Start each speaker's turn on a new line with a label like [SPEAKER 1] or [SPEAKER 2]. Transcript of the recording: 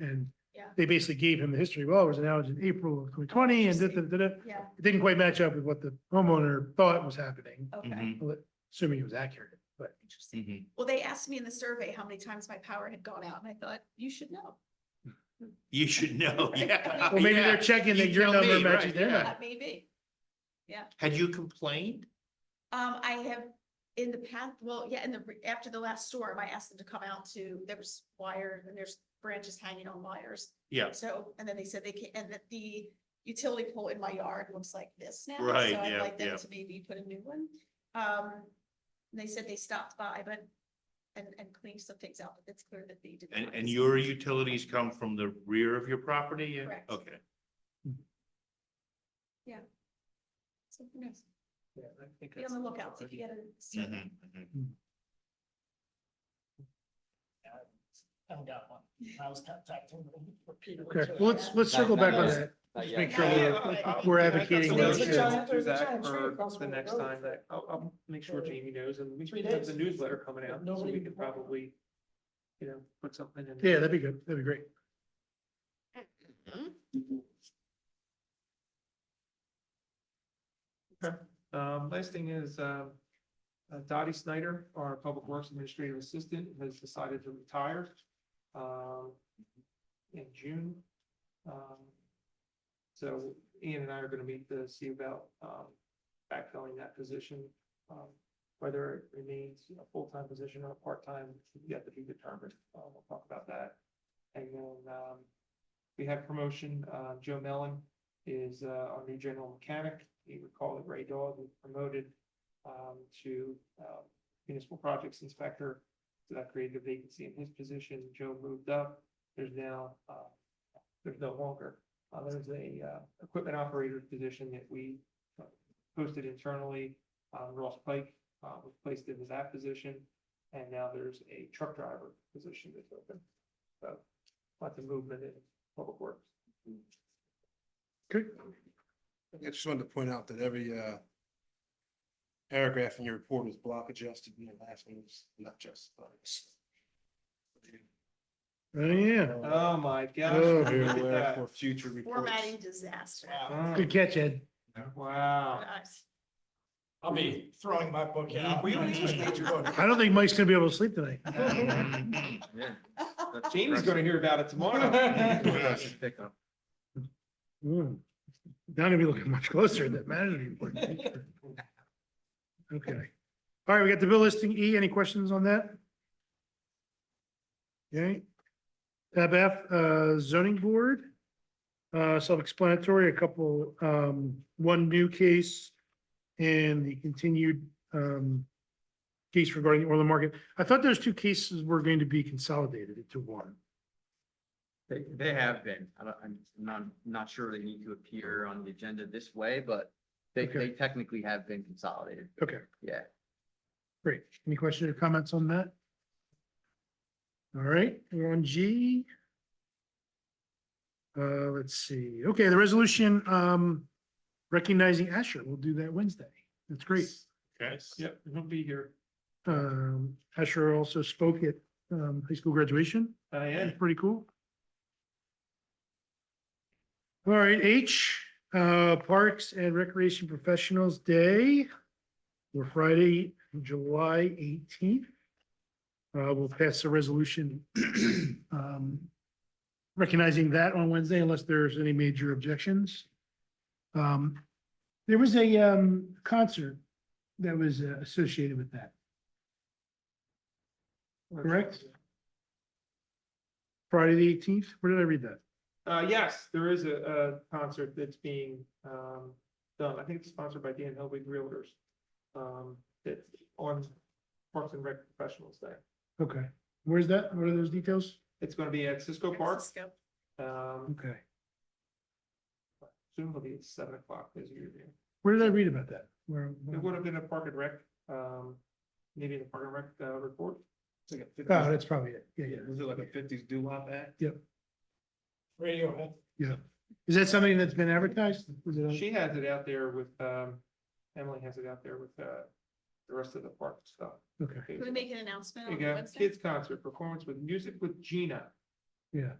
[SPEAKER 1] and
[SPEAKER 2] Yeah.
[SPEAKER 1] they basically gave him the history, well, it was an outage in April of twenty twenty and da, da, da, da.
[SPEAKER 2] Yeah,
[SPEAKER 1] It didn't quite match up with what the homeowner thought was happening,
[SPEAKER 2] okay,
[SPEAKER 3] Mhm.
[SPEAKER 1] assuming it was accurate, but
[SPEAKER 3] Mm-hmm.
[SPEAKER 2] interesting.
[SPEAKER 1] Mm-hmm.
[SPEAKER 2] Well, they asked me in the survey how many times my power had gone out, and I thought, you should know.
[SPEAKER 3] You should know, yeah.
[SPEAKER 1] Well, maybe
[SPEAKER 3] Uh, yeah.
[SPEAKER 1] they're checking that
[SPEAKER 3] You
[SPEAKER 1] your
[SPEAKER 3] tell
[SPEAKER 1] number
[SPEAKER 3] me,
[SPEAKER 1] matches
[SPEAKER 3] right,
[SPEAKER 1] their
[SPEAKER 3] yeah.
[SPEAKER 1] number.
[SPEAKER 2] That may be.
[SPEAKER 3] Had you complained?
[SPEAKER 2] Um, I have in the past, well, yeah, in the, after the last storm, I asked them to come out to, there was wire and there's branches hanging on wires.
[SPEAKER 3] Yeah.
[SPEAKER 2] So, and then they said they can, and that the utility pole in my yard looks like this now.
[SPEAKER 3] Right,
[SPEAKER 2] So I'd
[SPEAKER 3] yeah,
[SPEAKER 2] like them
[SPEAKER 3] yeah.
[SPEAKER 2] to maybe put a new one. Um, they said they stopped by, but, and, and cleaned some things out, but it's clear that they did.
[SPEAKER 3] And,
[SPEAKER 2] not.
[SPEAKER 3] and your utilities come from the rear of your property? Yeah,
[SPEAKER 2] Correct.
[SPEAKER 3] Okay.
[SPEAKER 2] So who knows?
[SPEAKER 3] Yeah, I think
[SPEAKER 2] Be on
[SPEAKER 3] that's
[SPEAKER 2] the
[SPEAKER 3] about
[SPEAKER 2] lookout if
[SPEAKER 3] right.
[SPEAKER 2] you get a survey.
[SPEAKER 1] Mm-hmm.
[SPEAKER 3] Mhm, mhm.
[SPEAKER 4] Haven't got one. I was contacting them repeatedly.
[SPEAKER 1] Okay,
[SPEAKER 4] too.
[SPEAKER 1] well, let's, let's
[SPEAKER 5] Not-
[SPEAKER 1] circle
[SPEAKER 5] not
[SPEAKER 1] back on
[SPEAKER 5] yet.
[SPEAKER 1] that.
[SPEAKER 5] Not
[SPEAKER 1] Make
[SPEAKER 5] yet.
[SPEAKER 1] sure
[SPEAKER 2] Yeah,
[SPEAKER 1] we're,
[SPEAKER 2] yeah, yeah.
[SPEAKER 6] I'll-
[SPEAKER 1] we're
[SPEAKER 6] I've got
[SPEAKER 1] advocating
[SPEAKER 6] some
[SPEAKER 2] those
[SPEAKER 6] notes
[SPEAKER 2] issues.
[SPEAKER 6] to Do
[SPEAKER 4] There's a giant
[SPEAKER 6] that
[SPEAKER 4] tree
[SPEAKER 6] for
[SPEAKER 4] across
[SPEAKER 6] the
[SPEAKER 4] the
[SPEAKER 6] next
[SPEAKER 4] road.
[SPEAKER 6] time that, I'll, I'll make sure Jamie knows and we
[SPEAKER 4] Three
[SPEAKER 6] should have
[SPEAKER 4] days.
[SPEAKER 6] the newsletter coming out, so
[SPEAKER 4] Nobody
[SPEAKER 6] we
[SPEAKER 4] can
[SPEAKER 6] could
[SPEAKER 4] walk.
[SPEAKER 6] probably, you know, put something in.
[SPEAKER 1] yeah, that'd be good, that'd be great.
[SPEAKER 6] Um, last thing is, um, uh, Dottie Snyder, our Public Works Administrative Assistant, has decided to retire, um, in June. Um, So Ian and I are gonna meet to see about, um, backfilling that position. um, Whether it remains a full-time position or a part-time, yet to be determined. Uh, we'll talk about that. And then, um, we have promotion, uh, Joe Mellon is uh, our new general mechanic. You recall that Ray Dog was promoted um, to um, municipal projects inspector. So that created a vacancy in his position. Joe moved up. There's now, uh, there's no longer. uh, There's a uh, equipment operator position that we uh, posted internally. Um, Ross Pike uh, was placed into that position. And now there's a truck driver position that's open. So lots of movement in public works.
[SPEAKER 1] Good.
[SPEAKER 7] I just wanted to point out that every uh. Paragraph in your report is block adjusted and the last one is not just.
[SPEAKER 1] Oh, yeah,
[SPEAKER 6] Oh, my gosh.
[SPEAKER 1] Oh,
[SPEAKER 6] look
[SPEAKER 7] Be
[SPEAKER 6] at
[SPEAKER 7] aware
[SPEAKER 6] that.
[SPEAKER 7] For future reports.
[SPEAKER 2] Formatting disaster.
[SPEAKER 1] good catch, Ed.
[SPEAKER 6] Wow.
[SPEAKER 2] Nice.
[SPEAKER 4] I'll be throwing my book out.
[SPEAKER 6] We don't even need your book.
[SPEAKER 1] I don't think Mike's gonna be able to sleep tonight.
[SPEAKER 3] Mm-hmm.
[SPEAKER 1] Mm-hmm.
[SPEAKER 6] Jamie's gonna hear about it tomorrow.
[SPEAKER 1] Hmm. Not gonna be looking much closer at that management report. Okay. All right, we got the bill listing E. Any questions on that? Okay. Tab F, uh, zoning board. Uh, self-explanatory, a couple, um, one new case and the continued, um, case regarding the Orland Market. I thought those two cases were going to be consolidated into one.
[SPEAKER 5] They, they have been. I don't, I'm not, not sure they need to appear on the agenda this way, but they,
[SPEAKER 1] Okay.
[SPEAKER 5] they technically have been consolidated.
[SPEAKER 1] Okay.
[SPEAKER 5] Yeah.
[SPEAKER 1] Great. Any questions or comments on that? All right, we're on G. Uh, let's see. Okay, the resolution, um, recognizing Asher. We'll do that Wednesday. That's great.
[SPEAKER 3] Okay.
[SPEAKER 6] Yep, he'll be here.
[SPEAKER 1] Um, Asher also spoke at, um, high school graduation.
[SPEAKER 6] I am.
[SPEAKER 1] That's pretty cool. All right, H, uh, Parks and Recreation Professionals Day, or Friday, July eighteenth. Uh, we'll pass a resolution, um, recognizing that on Wednesday unless there's any major objections. Um, there was a, um, concert that was uh, associated with that, correct? Friday the eighteenth, where did I read that?
[SPEAKER 6] Uh, yes, there is a, a concert that's being, um, done. I think it's sponsored by Dan Helwig Realtors. Um, that's on Parks and Rec Professionals Day.
[SPEAKER 1] Okay, where's that? What are those details?
[SPEAKER 6] It's gonna be at Cisco Park.
[SPEAKER 2] Francisco.
[SPEAKER 6] Um,
[SPEAKER 1] Okay.
[SPEAKER 6] soon it'll be at seven o'clock as usual.
[SPEAKER 1] Where did I read about that? Where?
[SPEAKER 6] It
[SPEAKER 1] where-
[SPEAKER 6] would have been a Park and Rec, um, maybe in the Park and Rec, uh, report.
[SPEAKER 1] Oh, that's probably it. Yeah, yeah.
[SPEAKER 7] Yeah, was it like a fifties doo-wop act?
[SPEAKER 4] Radiohead.
[SPEAKER 1] Is that something that's been advertised? Is it on-
[SPEAKER 6] She has it out there with, um, Emily has it out there with, uh, the rest of the park stuff.
[SPEAKER 1] Okay,
[SPEAKER 6] There
[SPEAKER 2] Can we make an announcement
[SPEAKER 6] you
[SPEAKER 2] on
[SPEAKER 6] go,
[SPEAKER 2] Wednesday?
[SPEAKER 6] kids concert performance with music with Gina.
[SPEAKER 1] yeah.